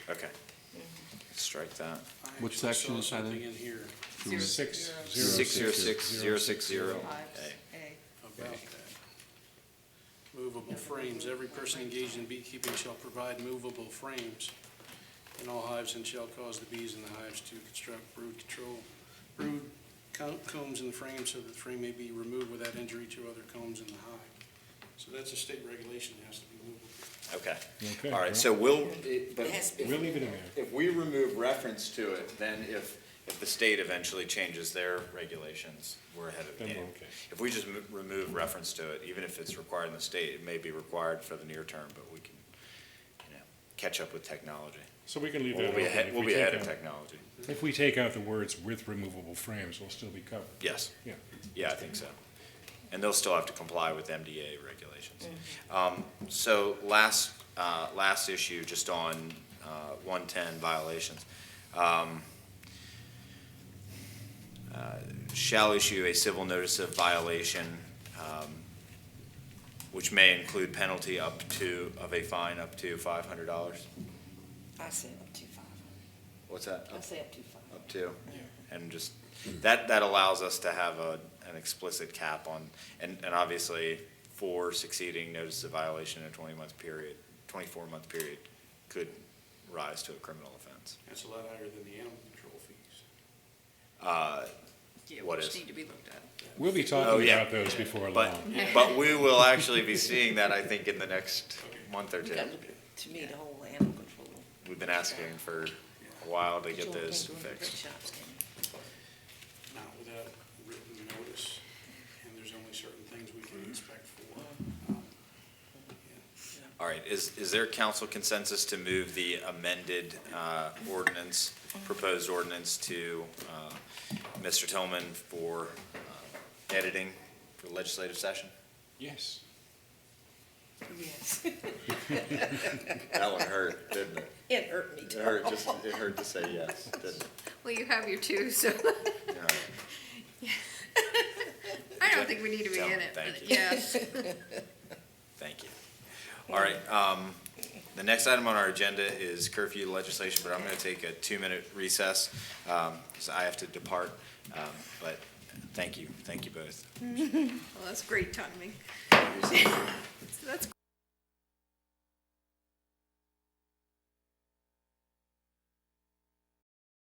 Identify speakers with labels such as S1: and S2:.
S1: Okay. Strike that.
S2: What section is that in?
S3: Something in here
S2: Zero.
S4: Six, zero.
S1: Six zero six zero six zero
S5: Five,
S1: A.
S5: A.
S3: about that. Movable frames, every person engaged in beekeeping shall provide movable frames in all hives and shall cause the bees in the hives to construct brood control, brood co- combs in the frame so that the frame may be removed without injury to other combs in the hive. So that's a state regulation, it has to be movable.
S1: Okay.
S4: Okay,
S1: All right,
S4: well-
S1: so we'll, it- but
S6: It has to be-
S4: We'll leave it in there.
S1: if we remove reference to it, then if, if the state eventually changes their regulations, we're ahead of the
S4: Then we're
S1: game.
S4: okay.
S1: If we just mo- remove reference to it, even if it's required in the state, it may be required for the near term, but we can, you know, catch up with technology.
S4: So we can leave that
S1: We'll be
S4: open.
S1: ahead,
S4: If
S1: we'll
S4: we
S1: be
S4: take
S1: ahead of
S4: out-
S1: technology.
S4: If we take out the words with removable frames, we'll still be covered.
S1: Yes.
S4: Yeah.
S1: Yeah, I think so. And they'll still have to comply with MDA regulations. Um, So last, uh, last issue, just on uh, 110 violations. Um, uh, Shall issue a civil notice of violation, um, which may include penalty up to, of a fine up to $500.
S6: I say up to five.
S1: What's that?
S6: I say up to five.
S1: up to. And just, that, that allows us to have a, an explicit cap on, and, and obviously, for succeeding notice of violation in a twenty-month period, twenty-four-month period could rise to a criminal offense.
S3: That's a lot higher than the animal control fees.
S1: Uh,
S7: Yeah,
S1: What
S7: which
S1: is?
S7: need to be looked at.
S4: We'll be
S1: Oh,
S4: talking
S1: yeah.
S4: about those before
S1: But,
S4: long.
S1: but we will actually be seeing that, I think, in the next month or
S6: You
S1: two.
S6: gotta look at, to me, the whole animal control.
S1: We've been asking for a while to get
S6: Control
S1: those
S6: can't go in the
S1: fixed.
S6: pet shops, can you?
S3: not without written notice, and there's only certain things we can expect for. um,
S1: All right, is, is there council consensus to move the amended uh, ordinance, proposed ordinance to uh, Mr. Tillman for uh, editing for legislative session?
S4: Yes.
S6: Yes,
S1: That one hurt, didn't it?
S6: it hurt me. too.
S1: just, it hurt to say yes, didn't
S7: Well, you have your two, so
S1: it?
S7: I don't think we need to be
S1: Tell
S7: in
S1: 'em,
S7: it,
S1: thank
S7: but
S1: you.
S7: yeah.
S1: Thank you. All right, um, the next item on our agenda is curfew legislation, but I'm gonna take a two-minute recess, um, because I have to depart. Um, But thank you, thank you both.
S7: Well, that's great timing. So that's